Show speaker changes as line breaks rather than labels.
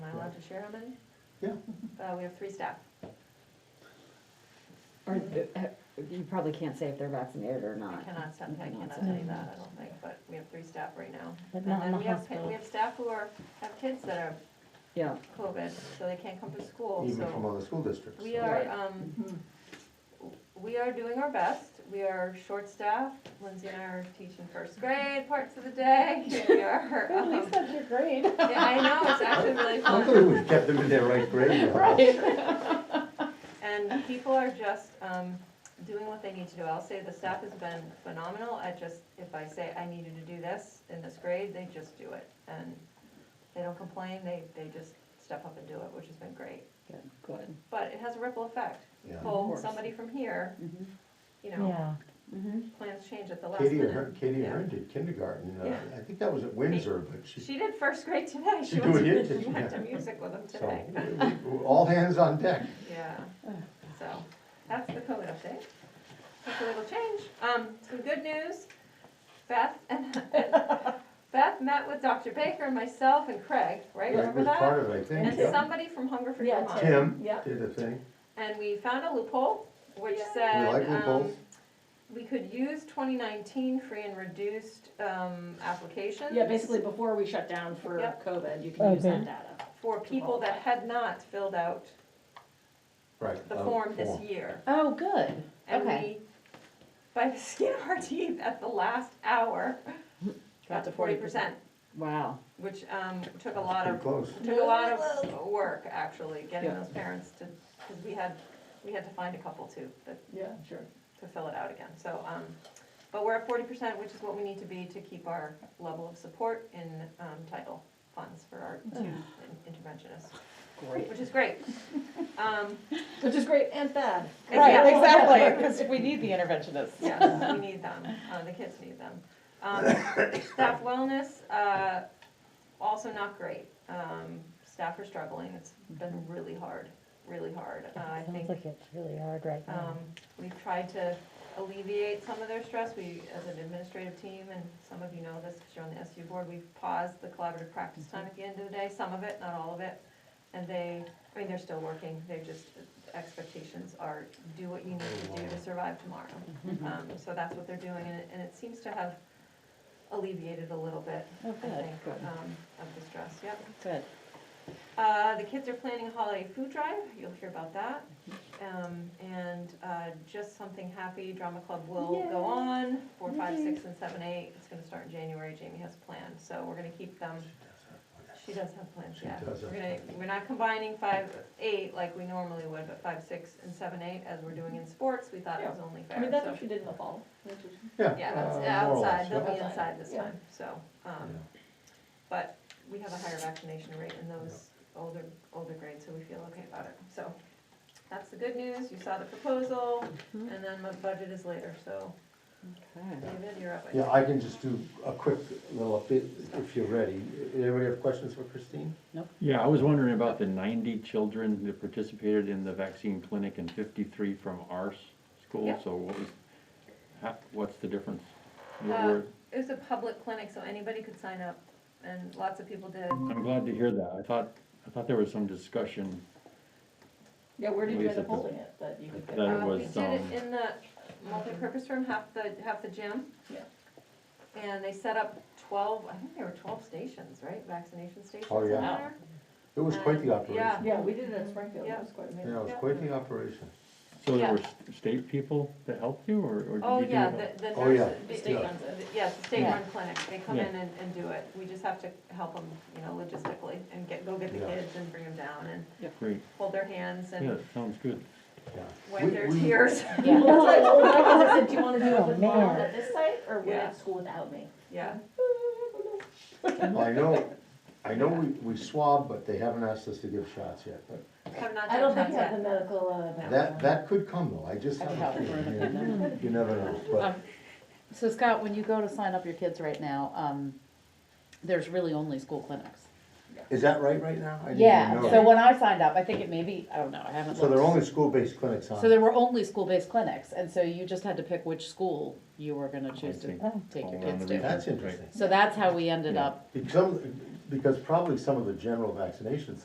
chairman.
Yeah.
Uh, we have three staff.
Or, uh, you probably can't say if they're vaccinated or
I
not.
cannot, say- I
You
cannot
say.
say that, I don't think, but we have three staff right now.
But
And
not in
then
the
we have, pa-
hospital.
we have staff who are, have kids that are
Yeah,
COVID, so they can't come to school,
even from Mm-hmm.
so
other school districts.
we are,
Right.
um, we are doing our best. We are short-staffed. Lindsay and I are teaching first grade parts of the day. We are, um,
your grade.
yeah, I know, it's actually really
I
fun.
thought we'd kept them in their right grade. level.
And people are just um, doing what they need to do. I'll say the staff has been phenomenal at just, if I say, I need you to do this in this grade, they just do it. And they don't complain, they, they just step up and do it, which has been great.
good, good.
But it has a ripple effect.
Yeah.
Pull
course.
somebody from here,
Mhm,
you know,
Yeah,
mhm.
plans change at the last
Katie,
minute.
Ahern- Katie
Yeah.
Ahern did kindergarten, uh,
Yeah.
I think that was at Windsor, but she,
She did first grade today.
She
went
did,
to-
did she?
Went to music with them
so,
today.
we- we- all hands on deck.
Yeah, so that's the COVID update. Hopefully it'll change. Um, some good news, Beth and, Beth met with Dr. Baker and myself and Craig, right,
That
remember
was
that?
part of it, I think,
And
yeah.
somebody from Hunger for
Yeah,
Vermont.
Tim.
Tim
yeah.
did a thing,
And we found a loophole, which
We like
said, um,
loopholes.
we could use twenty nineteen free and reduced, um, applications.
Yeah, basically before we shut down for
Yep.
COVID, you can use that
Okay.
data.
For people that had not filled out
right.
the
uh,
form this year.
Oh, good.
And we,
Okay.
by the skin of our teeth at the last hour, got to forty percent,
Wow.
which, um, took a lot
Pretty
of,
close.
took a lot of work, actually, getting
Yeah.
those parents to, because we had, we had to find a couple too, that,
Yeah, sure.
to fill it out again, so, um, but we're at forty percent, which is what we need to be to keep our level of support in, um, title funds for our two in- interventionists,
Great.
which is great. Um,
Which is great and bad.
right, exactly, because we need the interventionists.
Yes, we need them, uh, the kids need them. Um, staff wellness, uh, also not great. Um, staff are struggling, it's been really hard, really hard. Uh, I
Sounds
think,
like it's really hard right now.
um, we've tried to alleviate some of their stress, we, as an administrative team, and some of you know this, because you're on the SU board, we've paused the collaborative practice time at the end of the day, some of it, not all of it. And they, I mean, they're still working, they're just, expectations are, do what you need to do to survive tomorrow.
Mm-hmm.
Um, so that's what they're doing, and it, and it seems to have alleviated a little bit,
Oh,
I
good,
think,
good,
um, of the stress, yep.
good.
Uh, the kids are planning a holiday food drive, you'll hear about that.
Mm-hmm.
Um, and, uh, just something happy, drama club will go on, four, five, six, and seven, eight, it's gonna start in January, Jamie has planned, so we're gonna keep them, she does have plans,
She
yeah.
does have
We're gonna, we're not combining five, eight like we normally would, but five, six, and seven, eight, as we're doing in sports, we thought it was only fair,
I mean, that's
so-
what you did in the fall.
Yeah.
yeah,
uh,
that's
more or less,
outside, they'll
yeah.
be inside this
Yeah.
time, so, um, but we have a higher vaccination rate in those older, older grades, so we feel okay about it. So, that's the good news, you saw the proposal,
Mhm.
and then my budget is later, so,
Okay.
David, you're up. I
Yeah, I can just do a quick little update if you're ready. Anybody have questions for Christine?
Yeah, I was wondering about the ninety children that participated in the vaccine clinic and fifty-three from our s- school,
Yeah.
so what was, ha- what's the difference? What
Uh,
were-
think. It was a public clinic, so anybody could sign up, and lots of people did.
I'm glad to hear that, I thought, I thought there was some discussion,
Yeah, where did you end
Lisa
up
does-
holding it that you could get?
That it
Uh,
was,
We did
um,
it in the multipurpose room, half the, half the gym.
Yeah.
And they set up twelve, I think there were twelve stations, right, vaccination stations
Oh,
in
yeah.
Wow.
there?
It was quite the
Uh,
operation.
yeah.
Yeah, we did it at Springfield,
Yeah.
that was quite
Yeah, it
amazing.
was quite the operation.
so
Yeah.
there were s- state people that helped you, or, or
Oh,
did you do
yeah,
it?
the, the
Oh,
nurses,
yeah.
the-
The state
Yeah.
runs it.
Yes, the state run clinic, they come
Yeah.
in and, and do it, we just have to help them, you know, logistically, and get, go get the
Yeah.
kids and bring them down and
Great,
hold their hands
yeah,
and
sounds good.
Yeah.
wipe
We-
their
we-
tears,
Yeah, that's what I told Mike, I said, do you wanna do
Oh,
it with mom
man.
at this site or wait
Yeah.
at school without me?
yeah.
I know, I know we, we swab, but they haven't asked us to give shots yet, but
Have not
I don't
done
think
that
you have the
yet.
medical, uh,
that,
background.
that could come though, I just have a feeling. You never know, but
So Scott, when you go to sign up your kids right now, um, there's really only school clinics.
is that right right now? I didn't even
Yeah,
know.
so when I signed up, I think it may be, I don't know, I haven't
So there are
looked.
only school-based clinics on?
So there were only school-based clinics, and so you just had to pick which school you were
Oh,
gonna choose to
Okay.
take your
All around
kids
the
to.
region.
That's interesting.
So that's how we ended
Yeah.
up
Because, because probably some of the general vaccination